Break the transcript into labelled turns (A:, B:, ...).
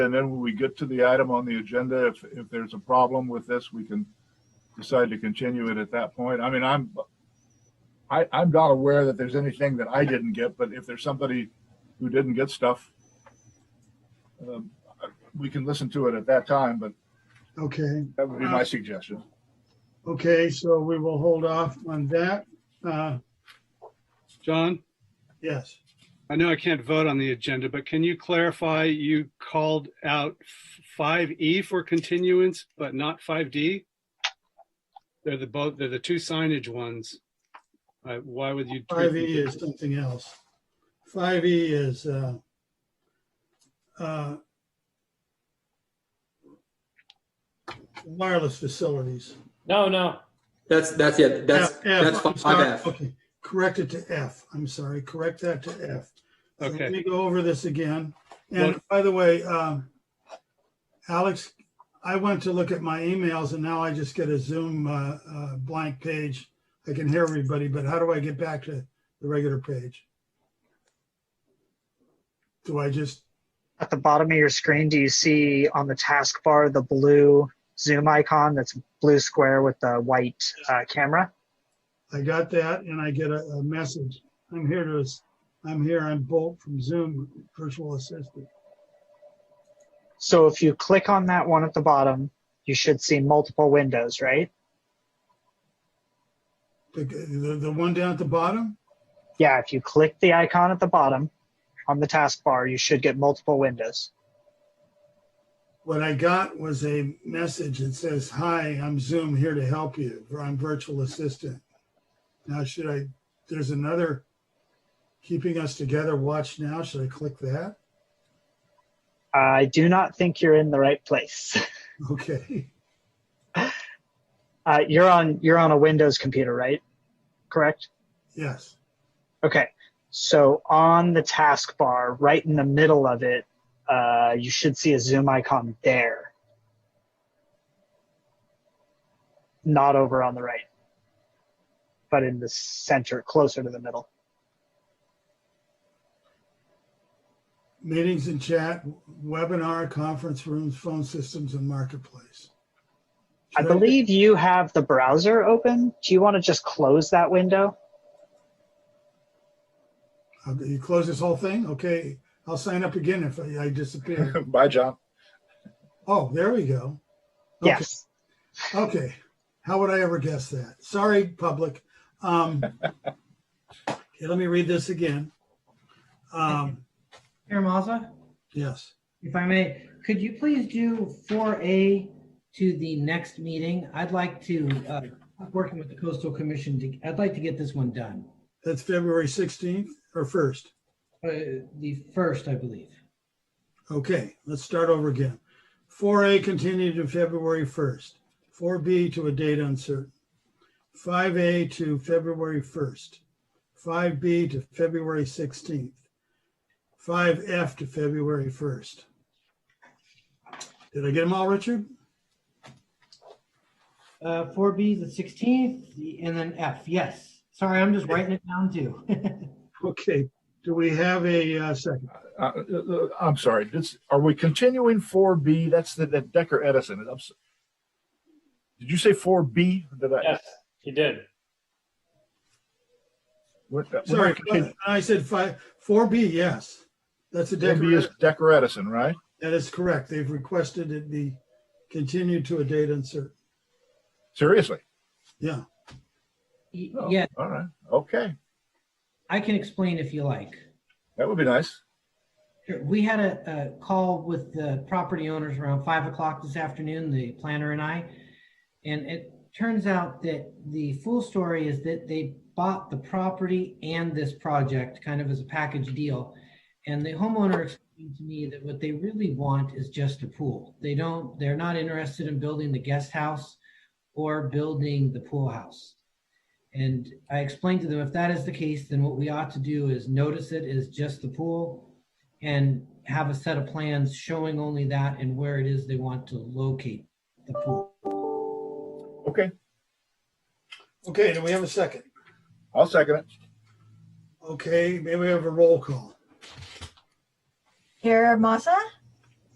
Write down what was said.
A: And then when we get to the item on the agenda, if, if there's a problem with this, we can decide to continue it at that point. I mean, I'm, I, I'm not aware that there's anything that I didn't get, but if there's somebody who didn't get stuff, um, we can listen to it at that time, but
B: Okay,
A: that would be my suggestion.
B: okay, so we will hold off on that. Uh,
C: John,
B: yes,
C: I know I can't vote on the agenda, but can you clarify, you called out five E for continuance, but not five D? They're the both, they're the two signage ones. Uh, Why would you? treat
B: five E
C: them-
B: is something else. Five E is, uh, uh, wireless facilities.
D: No, no.
E: That's, that's, yeah, that's,
B: F, F,
E: that's
B: I'm sorry.
E: five F.
B: Okay, correct it to F. I'm sorry, correct that to F. So
C: Okay.
B: Let me go over this again. And
C: Well-
B: by the way, um, Alex, I went to look at my emails and now I just get a Zoom uh, uh, blank page. I can hear everybody, but how do I get back to the regular page? Do I just,
F: At the bottom of your screen, do you see on the taskbar the blue zoom icon that's blue square with the white uh, camera?
B: I got that and I get a, a message. I'm here to, I'm here, I'm Bolt from Zoom Virtual Assistant.
F: So if you click on that one at the bottom, you should see multiple windows, right?
B: The, the, the one down at the bottom?
F: Yeah, if you click the icon at the bottom on the taskbar, you should get multiple windows.
B: what I got was a message that says, "Hi, I'm Zoom here to help you, or I'm virtual assistant." Now, should I? There's another keeping us together. Watch now. Should I click that?
F: Uh, I do not think you're in the right place.
B: Okay.
F: Uh, you're on you're on a Windows computer, right? Correct.
B: Yes.
F: Okay. So on the taskbar, right in the middle of it, uh, you should see a zoom icon there. Not over on the right, but in the center, closer to the middle.
B: Meetings and chat, webinar, conference rooms, phone systems, and marketplace.
F: I
B: Should
F: believe you have the browser open. Do you want to just close that window?
B: Uh, You close this whole thing. Okay. I'll sign up again if I, I disappear.
A: Bye, John.
B: oh, there we go. Okay.
F: Yes.
B: Okay. How would I ever guess that? Sorry, public. Um, okay, let me read this again. Um,
G: Mayor Mazza,
B: yes.
G: if I may, could you please do four A to the next meeting? I'd like to, uh, working with the coastal commission, to- I'd like to get this one done.
B: That's February 16th or 1st.
G: Uh, the first, I believe.
B: Okay, let's start over again. 4A continued to February 1st. 4B to a date uncertain. 5A to February 1st. 5B to February 16th. 5F to February 1st. Did I get them all, Richard?
G: Uh, four B is the sixteenth, and then F, yes. Sorry, I'm just writing it down too.
B: Okay, do we have a uh, second?
A: Uh, uh, I'm sorry, this, are we continuing four B? That's the, the Decker Edison. I'm s- Did you say four B? Did I?
D: Yes, he did.
A: we're- we're not
B: Sorry, uh,
A: continuing.
B: I said five, four B, yes. That's a
A: Four B is
B: decorative,
A: Decker Edison, right?
B: that is correct. They've requested it be continued to a date uncertain.
A: Seriously?
B: Yeah,
G: Y-
A: Oh,
G: Yeah,
A: All right, okay.
G: I can explain if you like.
A: That would be nice.
G: Sure. We had a, a call with the property owners around five o'clock this afternoon, the planner and I. And it turns out that the full story is that they bought the property and this project kind of as a package deal. And the homeowner explained to me that what they really want is just a pool. They don't, they're not interested in building the guest house or building the pool house. And I explained to them, if that is the case, then what we ought to do is notice it as just the pool and have a set of plans showing only that and where it is they want to locate the pool.
A: Okay,
B: okay, do we have a second?
A: I'll second it.
B: Okay, maybe we have a roll call.
H: Mayor Masa,